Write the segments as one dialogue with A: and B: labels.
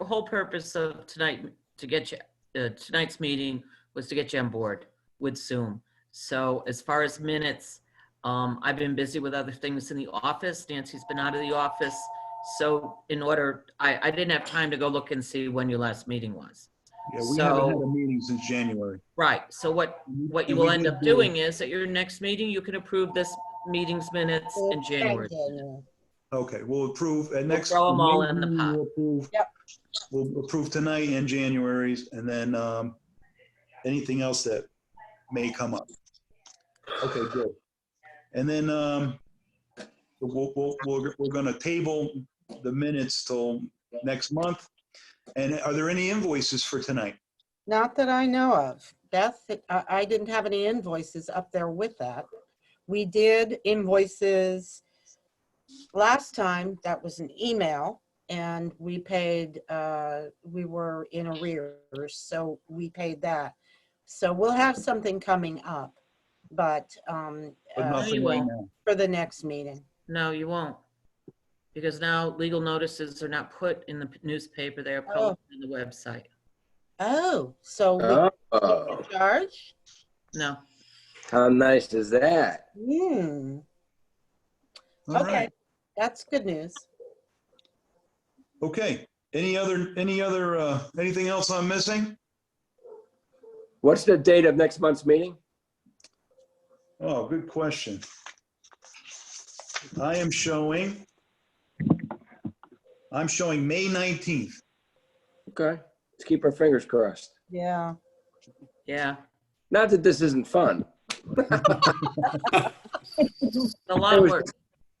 A: the whole purpose of tonight, to get you, uh, tonight's meeting was to get you on board with Zoom. So as far as minutes, um, I've been busy with other things in the office. Nancy's been out of the office. So in order, I, I didn't have time to go look and see when your last meeting was.
B: Yeah, we haven't had
A: So-
B: a meeting since January.
A: Right, so what, what you
B: And
A: will
B: we
A: end
B: did
A: up
B: do-
A: doing is at your next meeting, you can approve this meeting's minutes in January.
B: Okay, we'll approve at
A: We'll
B: next.
A: throw 'em all in the
B: meeting,
A: pot.
B: we'll approve-
C: Yep.
B: We'll approve tonight and January's and then um, anything else that may come up. Okay, good. And then um, we'll, we'll, we're, we're gonna table the minutes till next month. And are there any invoices for tonight?
C: Not that I know of. Beth, I, I didn't have any invoices up there with that. We did invoices last time, that was an email, and we paid, uh, we were in arrears, so we paid that. So we'll have something coming up, but, um,
B: But
C: uh,
B: nothing right now.
C: for the next meeting.
A: No, you won't. Because now legal notices are not put in the newspaper, they are
C: Oh.
A: posted on the website.
C: Oh, so we
D: Oh,
C: can charge?
A: No,
D: how nice is that?
C: Hmm,
B: All
C: okay,
B: right,
C: that's good news.
B: okay. Any other, any other, uh, anything else I'm missing?
D: What's the date of next month's meeting?
B: Oh, good question. I am showing, I'm showing May 19th.
D: Okay, let's keep our fingers crossed.
C: Yeah.
A: yeah.
D: Not that this isn't fun.
A: A lot of
D: was-
A: work.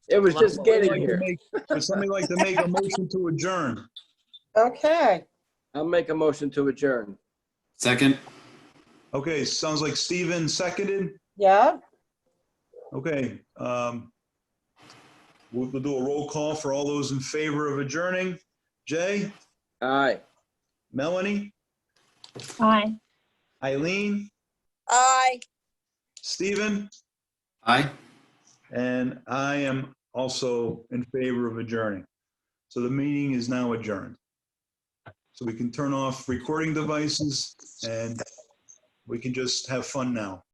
D: It was
A: Well,
D: just getting
B: Like to
D: here.
B: make- Would somebody like to make a motion to adjourn?
C: Okay,
D: I'll make a motion to adjourn.
E: Second,
B: Okay, sounds like Steven seconded.
C: yeah,
B: Okay. um, We'll we'll do a roll call for all those in favor of adjourning. Jay,
D: Aye.
B: Melanie,
F: Aye.
B: Eileen,
G: Aye.
B: Steven,
E: aye.
B: and I am also in favor of adjourning. So the meeting is now adjourned. So we can turn off recording devices and we can just have fun now.